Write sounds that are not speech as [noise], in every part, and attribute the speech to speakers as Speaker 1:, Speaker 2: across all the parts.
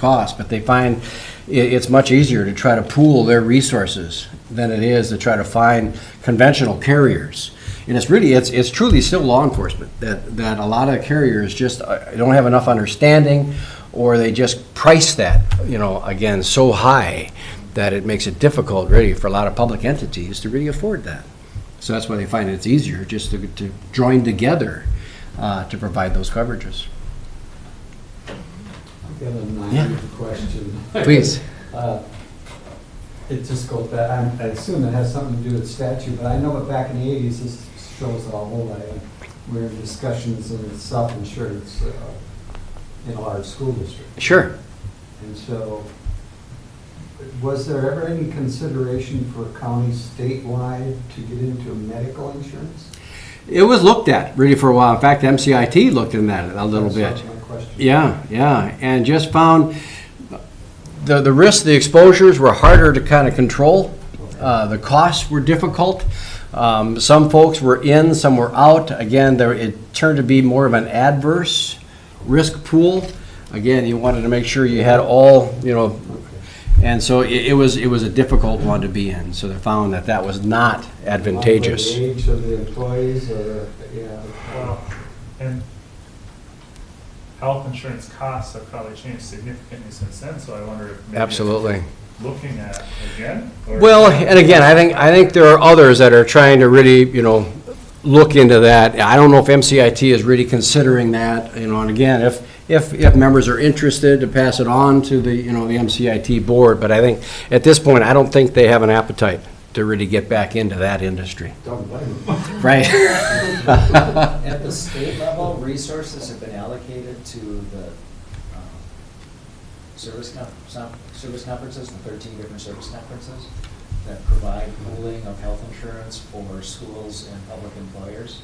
Speaker 1: cost, but they find i it's much easier to try to pool their resources than it is to try to find conventional carriers. And it's really, it's, it's truly still law enforcement, that, that a lot of carriers just uh, don't have enough understanding, or they just price that, you know, again, so high that it makes it difficult really for a lot of public entities to really afford that. So that's why they find it's easier just to, to join together uh, to provide those coverages.
Speaker 2: Got a
Speaker 1: Yeah.
Speaker 2: naive question.
Speaker 1: Please.
Speaker 2: Uh, It just goes back, I'm- I assume it has something to do with statute, but I know that back in the eighties, this shows a whole lot, of- we were in discussions in self-insurance uh, in a large school district.
Speaker 1: Sure.
Speaker 2: And so, was there ever any consideration for counties statewide to get into medical insurance?
Speaker 1: It was looked at really for a while. In fact, MCIT looked in that a little bit.
Speaker 2: That's my question.
Speaker 1: Yeah, yeah, and just found the, the risks, the exposures were harder to kind of control. Uh, the costs were difficult. Um, some folks were in, some were out. Again, there, it turned to be more of an adverse risk pool. Again, you wanted to make sure you had all, you know, and so it, it was, it was a difficult one to be in. So they found that that was not advantageous.
Speaker 2: Like The age of the employees or, yeah.
Speaker 3: Well, and health insurance costs have probably changed significantly since then, so I wonder if maybe.
Speaker 1: Absolutely.
Speaker 3: Looking at again? or-
Speaker 1: Well, and again, I think, I think there are others that are trying to really, you know, look into that. I don't know if MCIT is really considering that, you know, and again, if, if, if members are interested to pass it on to the, you know, the MCIT board, but I think, at this point, I don't think they have an appetite to really get back into that industry.
Speaker 2: Don't blame them.
Speaker 1: [laughs] Right.
Speaker 4: [laughs]
Speaker 2: [laughs]
Speaker 4: At the state level, resources have been allocated to the um, service, con- some- service conferences, the 13 different service conferences that provide pooling of health insurance for schools and public employers.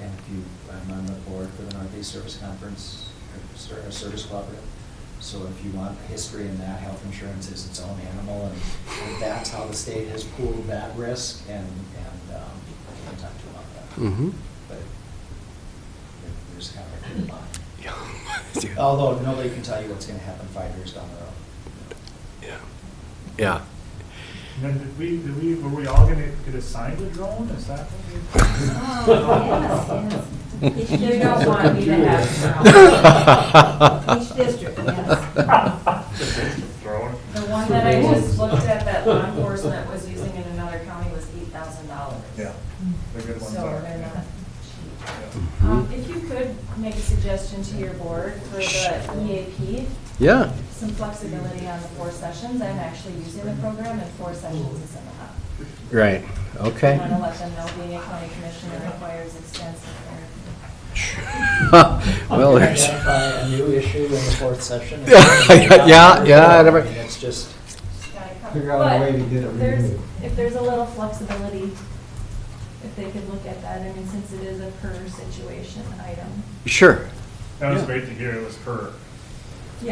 Speaker 4: And if you, I'm on the board for the Northeast Service Conference, or ser- or Service Cooperative. So if you want history in that, health insurance is its own animal, and that's how the state has pooled that risk, and, and um, we can talk to you about that
Speaker 1: Mhm.
Speaker 4: but there- there's kind of a
Speaker 1: [clears throat]
Speaker 4: clear line. Although nobody can tell you what's going to happen five years down the road.
Speaker 1: Yeah.
Speaker 3: And Then did we, did we, were we all gonna get assigned a drone? Is that
Speaker 5: [laughs]
Speaker 3: what we?
Speaker 5: Oh, yes, yes. You don't want me to
Speaker 1: [laughs]
Speaker 5: have it. Each district, yes.
Speaker 3: Drone?
Speaker 5: The one that I just looked at that law enforcement was using in another county was eight thousand dollars.
Speaker 3: Yeah. The good
Speaker 5: So
Speaker 3: ones are.
Speaker 5: they're
Speaker 3: yeah.
Speaker 5: not cheap. Um, if you could make a suggestion to your board for the EAP,
Speaker 1: Yeah,
Speaker 5: some flexibility on the four sessions, I'm actually using the program and four sessions is enough.
Speaker 1: right,
Speaker 5: I
Speaker 1: okay.
Speaker 5: want to let them know being a county commissioner requires extensive therapy.
Speaker 1: [laughs] Well, there's,
Speaker 4: Identify a new issue in the fourth session.
Speaker 1: [laughs] Yeah, yeah, I never-
Speaker 4: I mean, It's just,
Speaker 5: gotta cover-
Speaker 2: Figure out a way to
Speaker 5: but
Speaker 2: get it
Speaker 5: there's-
Speaker 2: renewed.
Speaker 5: If there's a little flexibility, if they could look at that, I mean, since it is a per situation item.
Speaker 1: sure,
Speaker 3: That was
Speaker 1: Yeah.
Speaker 3: great to hear. It was per.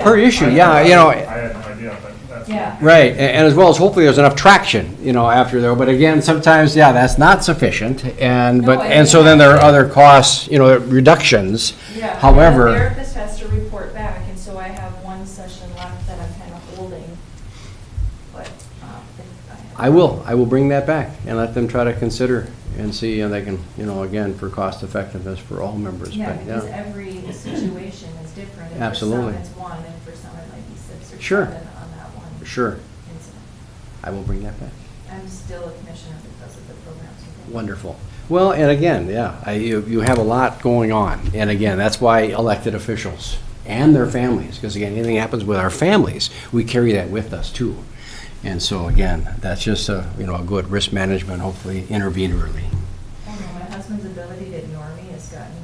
Speaker 1: per issue, yeah, you
Speaker 3: I
Speaker 1: know,
Speaker 3: had no idea, but that's.
Speaker 5: Yeah.
Speaker 1: Right, a- and as well as hopefully there's enough traction, you know, after there, but again, sometimes, yeah, that's not sufficient, and, but,
Speaker 5: No, I
Speaker 1: and so then there are other costs, you know, reductions.
Speaker 5: Yeah. The
Speaker 1: However,
Speaker 5: therapist has to report back, and so I have one session left that I'm kind of holding, but, um, if I.
Speaker 1: I will, I will bring that back and let them try to consider and see, and they can, you know, again, for cost effectiveness for all members,
Speaker 5: Yeah,
Speaker 1: but,
Speaker 5: because
Speaker 1: yeah.
Speaker 5: every situation is different. And
Speaker 1: Absolutely.
Speaker 5: For some, it's one, and for some, it might be six or
Speaker 1: Sure.
Speaker 5: seven on that one.
Speaker 1: Sure,
Speaker 5: incident.
Speaker 1: I will bring that back.
Speaker 5: I'm still a commissioner because of the programs.
Speaker 1: Wonderful. Well, and again, yeah, I, you, you have a lot going on. And again, that's why elected officials and their families, because again, anything happens with our families, we carry that with us too. And so again, that's just a, you know, a good risk management, hopefully intervene early. [laughs]
Speaker 5: I know, Oh, my husband's ability to ignore me has gotten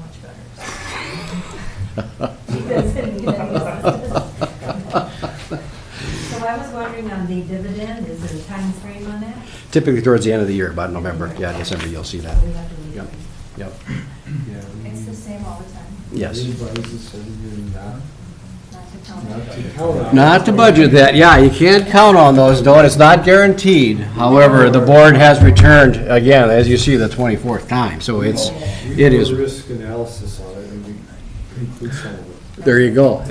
Speaker 5: much [laughs] better. He doesn't need any assistance.
Speaker 6: So I was wondering on the dividend, is there a time frame on that?
Speaker 1: Typically towards the end of the year, about November, yeah, December, you'll see that.
Speaker 6: We have to leave.
Speaker 1: Yep, yep,
Speaker 5: It's the same all the time,
Speaker 1: yes.
Speaker 5: not to tell me.
Speaker 1: Not to budget that, yeah, you can't count on those, no, and it's not guaranteed. However, the board has returned, again, as you see, the 24th time, so it's, it is.
Speaker 2: risk analysis on it, and we include some of it.
Speaker 1: There you go.